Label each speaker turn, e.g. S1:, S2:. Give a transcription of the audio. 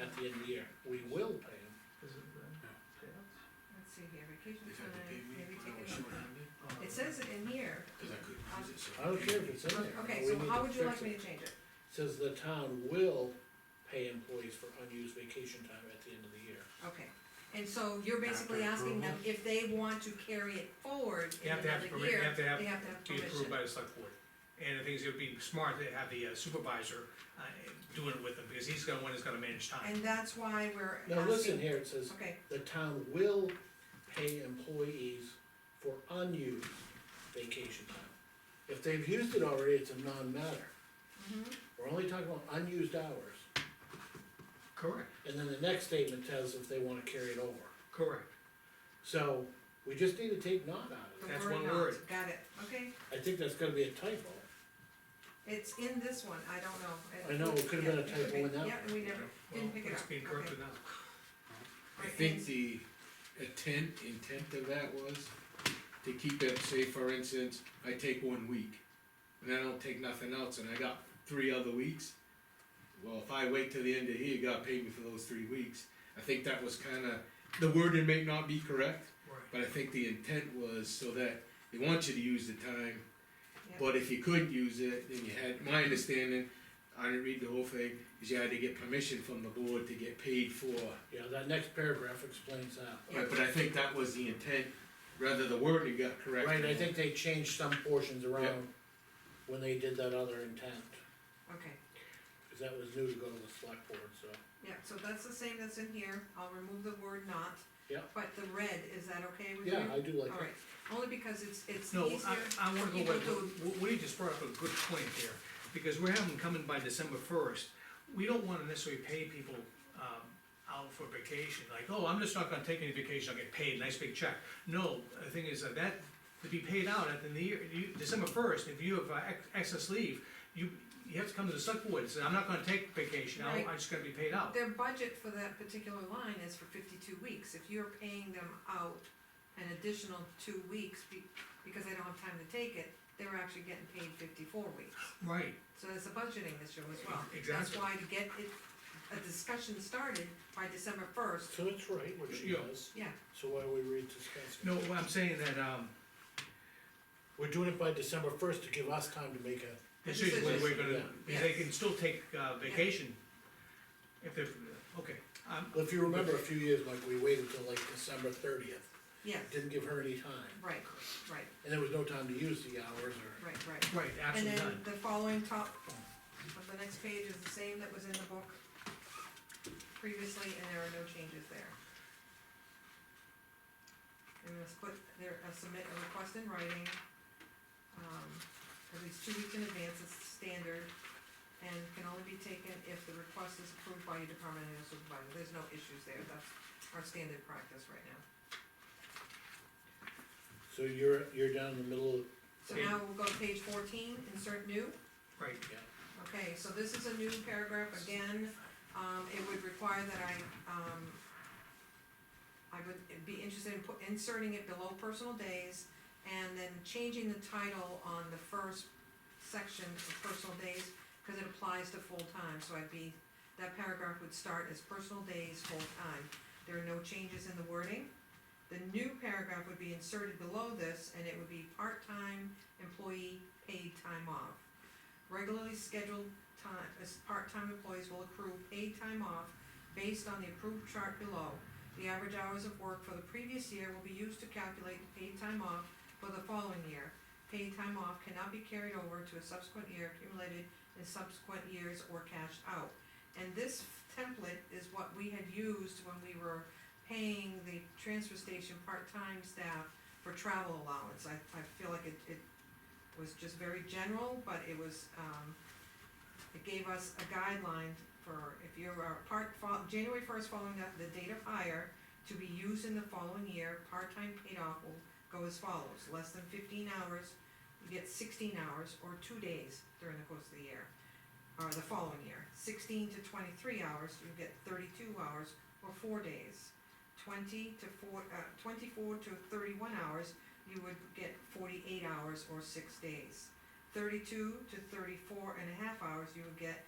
S1: at the end of the year, we will pay them.
S2: Is it red? Payouts?
S3: Let's see here, vacation
S4: They've had to pay
S3: time,
S4: me
S3: maybe
S4: when
S3: take
S4: I was
S3: it.
S4: short-handed,
S3: It says it in here,
S4: cause I couldn't use it, so.
S1: I don't care if it's in there.
S3: okay,
S1: we
S3: so
S1: need
S3: how
S1: to
S3: would you
S1: fix
S3: like me
S1: it.
S3: to change it?
S1: Says the town will pay employees for unused vacation time at the end of the year.
S3: Okay, and so you're basically
S4: After
S3: asking them if they want to carry it forward
S2: You
S3: in
S2: have to have
S3: another
S2: permi- you
S3: year,
S2: have to have-
S3: they have to have
S2: Be approved
S3: permission.
S2: by the select board. And the thing is, it would be smart to have the uh, supervisor, uh, doing it with them, because he's gonna, one that's gonna manage time.
S3: And that's why we're asking.
S1: Now, listen here, it says,
S3: Okay,
S1: the town will pay employees for unused vacation time. If they've used it already, it's a non-matter.
S3: Mm-hmm.
S1: We're only talking about unused hours,
S2: Correct,
S1: and then the next statement tells if they wanna carry it over.
S2: correct.
S1: So, we just need to take not out of
S3: the
S2: That's
S3: word
S2: one
S3: not,
S2: word.
S3: got it, okay,
S1: it. I think that's gonna be a typo.
S3: it's in this one, I don't know. It-
S1: I know, it could've been a
S3: yeah, it could've
S1: typo in
S3: been-
S1: that
S3: Yeah, we never,
S2: Well,
S3: didn't pick it up,
S2: It's being
S3: okay.
S2: corrected now.
S4: I
S3: Right,
S4: think
S3: and-
S4: the intent, intent of that was to keep it, say for instance, I take one week, and I don't take nothing else, and I got three other weeks. Well, if I wait till the end of here, you gotta pay me for those three weeks, I think that was kinda, the wording may not be correct,
S2: Right.
S4: but I think the intent was so that they want you to use the time,
S3: Yeah.
S4: but if you couldn't use it, then you had, my understanding, I didn't read the whole thing, is you had to get permission from the board to get paid for
S1: Yeah, that next paragraph explains that.
S4: Right, but I think that was the intent, rather the wording got correct.
S1: Right, I think they changed some portions around when they did that other intent,
S3: Okay,
S1: cause that was new to go to the select board, so.
S3: yeah, so that's the same that's in here, I'll remove the word not.
S1: Yeah.
S3: But the red, is that okay with you?
S1: Yeah, I do like that.
S3: Alright, only because it's, it's
S2: No,
S3: easier.
S2: I, I wanna go
S3: People
S2: with,
S3: do-
S2: Wh- Woody just brought up a good point there, because we're having them coming by December first. We don't wanna necessarily pay people, um, out for vacation, like, oh, I'm just not gonna take any vacation, I'll get paid, nice big check. No, the thing is that that, to be paid out at the end of the year, you, December first, if you have uh, ex- excess leave, you, you have to come to the select board and say, I'm not gonna take vacation, I'm,
S3: Right.
S2: I'm just gonna be paid out.
S3: Their budget for that particular line is for fifty-two weeks, if you're paying them out an additional two weeks be- because they don't have time to take it, they're actually getting paid fifty-four weeks.
S2: Right,
S3: So there's a budgeting issue as well. That's
S2: Exactly.
S3: why to get it, a discussion started by December first,
S1: So it's right, what she
S2: Yeah.
S1: does,
S3: yeah,
S1: so why are we rediscussing?
S2: no, I'm saying that, um,
S1: We're doing it by December first to give us time to make a,
S2: This is what we're gonna, because they
S3: Yes.
S2: can still take uh, vacation. If they're, okay, um,
S1: if you remember a few years, like, we waited till like December thirtieth,
S3: yes,
S1: didn't give her any time,
S3: right, right,
S1: and there was no time to use the hours or.
S3: right, right.
S2: right,
S3: And
S2: absolutely
S3: then
S2: done.
S3: the following top of the next page is the same that was in the book previously, and there are no changes there. They're gonna split, they're, uh, submit a request in writing, um, at least two weeks in advance is standard, and can only be taken if the request is approved by your department head or supervisor, there's no issues there, that's our standard practice right now.
S1: So you're, you're down in the middle of,
S3: So
S2: Okay.
S3: now we'll go to page fourteen, insert new.
S2: Right,
S3: Okay, so this is a new paragraph again, um, it would require that I, um, I would be interested in put, inserting it below personal days, and then changing the title on the first section of personal days, cause it applies to full-time, so I'd be, that paragraph would start as personal days, full-time. There are no changes in the wording. The new paragraph would be inserted below this, and it would be part-time employee paid time off. Regularly scheduled time, as part-time employees will accrue paid time off based on the approved chart below. The average hours of work for the previous year will be used to calculate the paid time off for the following year. Paid time off cannot be carried over to a subsequent year accumulated in subsequent years or cashed out. And this template is what we had used when we were paying the transfer station part-time staff for travel allowance. I, I feel like it, it was just very general, but it was, um, it gave us a guideline for if you're a part, fol- January first following that, the date of hire, to be used in the following year, part-time paid off will go as follows, less than fifteen hours, you get sixteen hours or two days during the course of the year, or the following year. Sixteen to twenty-three hours, you get thirty-two hours or four days. Twenty to four, uh, twenty-four to thirty-one hours, you would get forty-eight hours or six days. Thirty-two to 34 and a half hours, you would get